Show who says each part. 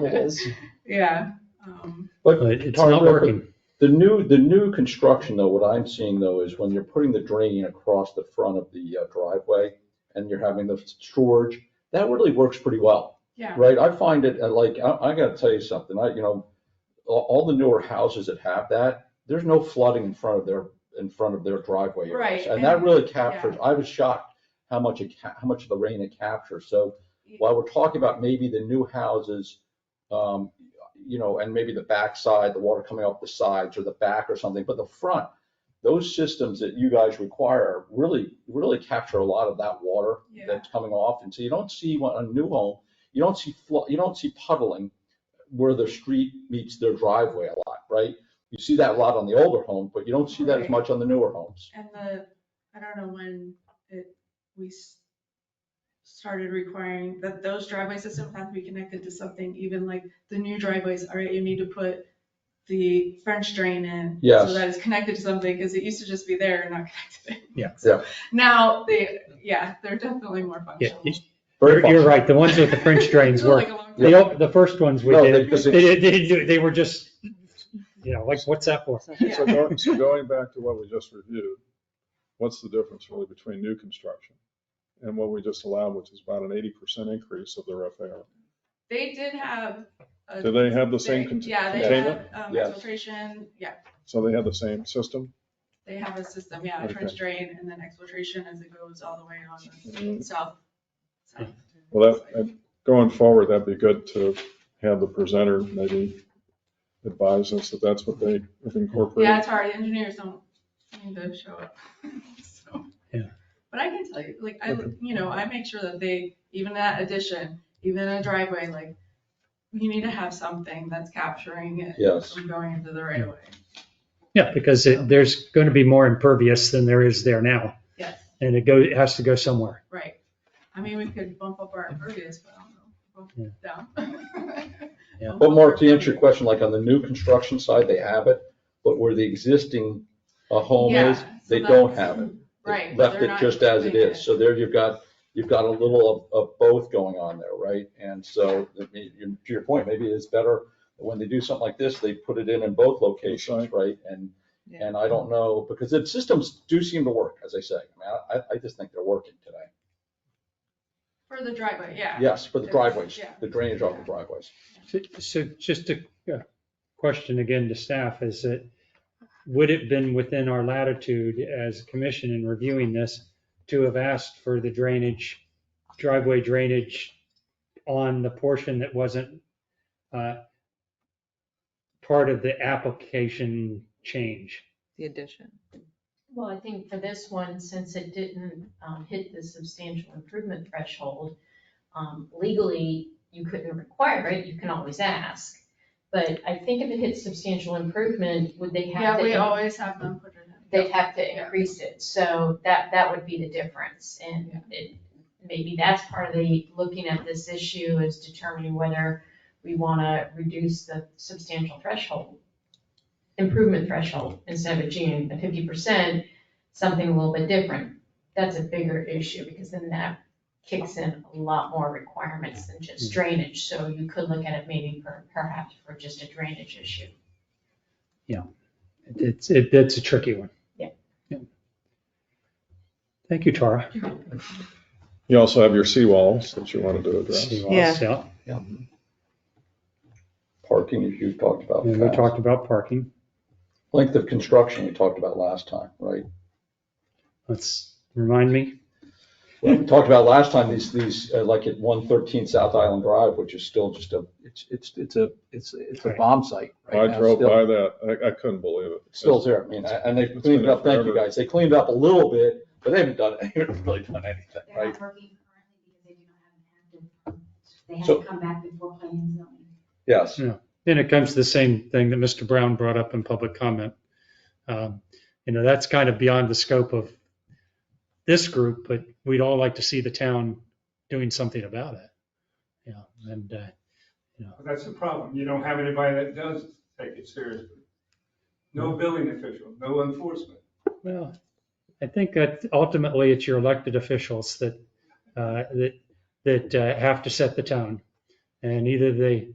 Speaker 1: what it is.
Speaker 2: Yeah. um,
Speaker 3: But
Speaker 4: But it's not working.
Speaker 3: the new, the new construction though, what I'm seeing though is when you're putting the drain across the front of the uh, driveway and you're having the storage, that really works pretty well.
Speaker 2: Yeah,
Speaker 3: Right, I find it uh, like, I, I gotta tell you something, I, you know, all, all the newer houses that have that, there's no flooding in front of their, in front of their driveway.
Speaker 2: Right,
Speaker 3: areas. And that
Speaker 2: and-
Speaker 3: really captures, I was shocked how much it, ca- how much of the rain it captures, so while we're talking about maybe the new houses, um, you know, and maybe the backside, the water coming off the sides or the back or something, but the front, those systems that you guys require really, really capture a lot of that water
Speaker 2: yeah,
Speaker 3: that's coming off, and so you don't see one- a new home, you don't see flood, you don't see puddling where the street meets their driveway a lot, right? You see that a lot on the older homes, but you don't see that as
Speaker 2: Right.
Speaker 3: much on the newer homes.
Speaker 2: and the, I don't know when it, we s- started requiring that those driveway systems have to be connected to something, even like the new driveways, all right, you need to put the French drain in.
Speaker 3: Yes.
Speaker 2: So that it's connected to something, because it used to just be there and not connected.
Speaker 4: Yeah.
Speaker 3: Yeah.
Speaker 2: Now, they, yeah, they're definitely more
Speaker 4: Yeah,
Speaker 2: functional.
Speaker 4: you-
Speaker 3: Very
Speaker 4: you're, you're
Speaker 3: much.
Speaker 4: right. The ones with the French drains
Speaker 2: Took, like,
Speaker 4: work.
Speaker 2: a long
Speaker 4: The,
Speaker 2: time.
Speaker 4: o- the first ones we
Speaker 3: No,
Speaker 4: did,
Speaker 3: because
Speaker 4: they,
Speaker 3: it-
Speaker 4: they, didn't do- they were just, you know, like, what's that for?
Speaker 2: Yeah.
Speaker 5: So going, so going back to what we just reviewed, what's the difference really between new construction and what we just allowed, which is about an eighty percent increase of their FAR?
Speaker 2: They did have. a-
Speaker 5: Do they have the same
Speaker 2: they-
Speaker 5: cont-
Speaker 2: Yeah, they
Speaker 5: containment?
Speaker 2: have um,
Speaker 3: Yes.
Speaker 2: exfiltration, yeah,
Speaker 5: So they have the same system?
Speaker 2: they have a system, yeah, a trench
Speaker 5: Okay.
Speaker 2: drain and then exfiltration as it goes all the way on the
Speaker 5: Mm,
Speaker 2: south. side.
Speaker 5: Well, that, that- going forward, that'd be good to have the presenter maybe advise us that that's what they have
Speaker 2: Yeah,
Speaker 5: incorporated.
Speaker 2: it's hard, engineers don't seem to show up. so.
Speaker 4: Yeah.
Speaker 2: But I can tell you, like, I,
Speaker 5: Okay.
Speaker 2: you know, I make sure that they, even that addition, even a driveway, like, you need to have something that's capturing it
Speaker 3: Yes,
Speaker 2: from going into the right of way.
Speaker 4: Yeah, because it, there's going to be more impervious than there is there now,
Speaker 2: Yes,
Speaker 4: and it go, it has to go somewhere.
Speaker 2: right. I mean, we could bump up our impervious, but I don't know, bump it down.
Speaker 4: Yeah.
Speaker 2: Bump
Speaker 3: but
Speaker 2: up
Speaker 3: Mark,
Speaker 2: our
Speaker 3: to answer your
Speaker 2: impervious.
Speaker 3: question, like on the new construction side, they have it, but where the existing uh, home
Speaker 2: Yeah,
Speaker 3: is,
Speaker 2: so
Speaker 3: they don't
Speaker 2: that's-
Speaker 3: have it. They
Speaker 2: Right.
Speaker 3: Left
Speaker 2: they're
Speaker 3: it
Speaker 2: not
Speaker 3: just as it
Speaker 2: doing
Speaker 3: is, so there you've got, you've got a little of, of both going on there, right? And so, I mean, you- to your point, maybe it's better, when they do something like this, they put it in in both locations,
Speaker 5: That's
Speaker 3: right? And, and I don't know, because the systems do seem to work, as I say, I mean, I, I just think they're working today.
Speaker 2: For the driveway, yeah.
Speaker 3: Yes, for the driveways,
Speaker 2: Yeah.
Speaker 3: the drainage off the driveways.
Speaker 4: So, so just a a question again to staff is that, would it been within our latitude as a commission in reviewing this to have asked for the drainage, driveway drainage on the portion that wasn't uh, part of the application change?
Speaker 6: the addition.
Speaker 7: Well, I think for this one, since it didn't um, hit the substantial improvement threshold, um, legally, you couldn't require it, you can always ask. But I think if it hits substantial improvement, would they have
Speaker 2: Yeah,
Speaker 7: to?
Speaker 2: we always have them put it in.
Speaker 7: They'd have to increase it, so that, that would be the difference. And it, maybe that's part of the, looking at this issue is determining whether we want to reduce the substantial threshold, improvement threshold, instead of achieving the fifty percent, something a little bit different. That's a bigger issue, because then that kicks in a lot more requirements than just drainage. So you could look at it maybe per- perhaps for just a drainage issue.
Speaker 4: It's, it- it's a tricky one.
Speaker 7: Yeah.
Speaker 4: Yeah. Thank you, Tara.
Speaker 5: You also have your seawalls that you wanted to address.
Speaker 4: See what
Speaker 6: Yeah.
Speaker 4: else out.
Speaker 3: Parking, as you've talked about.
Speaker 4: And we
Speaker 3: Pat.
Speaker 4: talked about parking.
Speaker 3: Length of construction, we talked about last time, right?
Speaker 4: Let's, remind me,
Speaker 3: Well, We talked about last time, these, these, uh, like at one thirteen South Island Drive, which is still just a,
Speaker 8: It's, it's, it's a, it's, it's a
Speaker 4: Right.
Speaker 8: bomb site
Speaker 5: I
Speaker 8: right now.
Speaker 5: drove
Speaker 8: still.
Speaker 5: by that, I, I couldn't believe it.
Speaker 3: still there. I mean, and they
Speaker 5: It's
Speaker 3: cleaned it
Speaker 5: been
Speaker 3: up, thank you
Speaker 5: forever.
Speaker 3: guys. They cleaned it up a little bit, but they haven't done, they haven't really done anything,
Speaker 9: They're
Speaker 3: right?
Speaker 9: not working currently because they do not have an active permit. They have
Speaker 3: So-
Speaker 9: to come back before planning and zoning.
Speaker 3: Yes,
Speaker 4: then it comes to the same thing that Mr. Brown brought up in public comment. Um, You know, that's kind of beyond the scope of this group, but we'd all like to see the town doing something about it. Yeah, and, uh,
Speaker 10: Well, That's the problem. You don't have anybody that does take it seriously. No billing official, no enforcement.
Speaker 4: Well, I think that ultimately it's your elected officials that, uh, that, that uh, have to set the tone. And either they